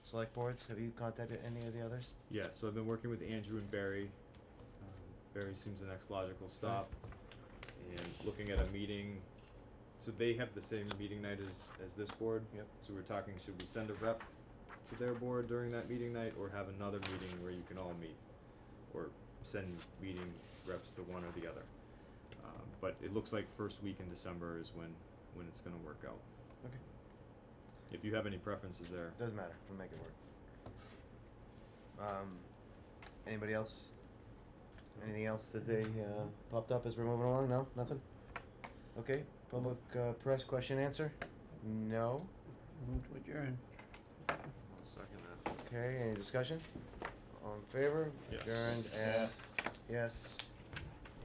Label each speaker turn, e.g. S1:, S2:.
S1: select boards? Have you contacted any of the others?
S2: Yeah, so I've been working with Andrew and Barry. Um, Barry seems the next logical stop. And looking at a meeting, so they have the same meeting night as, as this board.
S1: Yep.
S2: So we're talking, should we send a rep to their board during that meeting night or have another meeting where you can all meet? Or send meeting reps to one or the other. Um, but it looks like first week in December is when, when it's gonna work out.
S1: Okay.
S2: If you have any preferences there,
S1: Doesn't matter. We'll make it work. Um, anybody else? Anything else that they uh, popped up as we're moving along? No, nothing. Okay. Public uh, press question answer. No.
S3: Move to adjourn.
S2: I'll second that.
S1: Okay. Any discussion? All in favor?
S2: Yes.
S1: Adjourned. At, yes.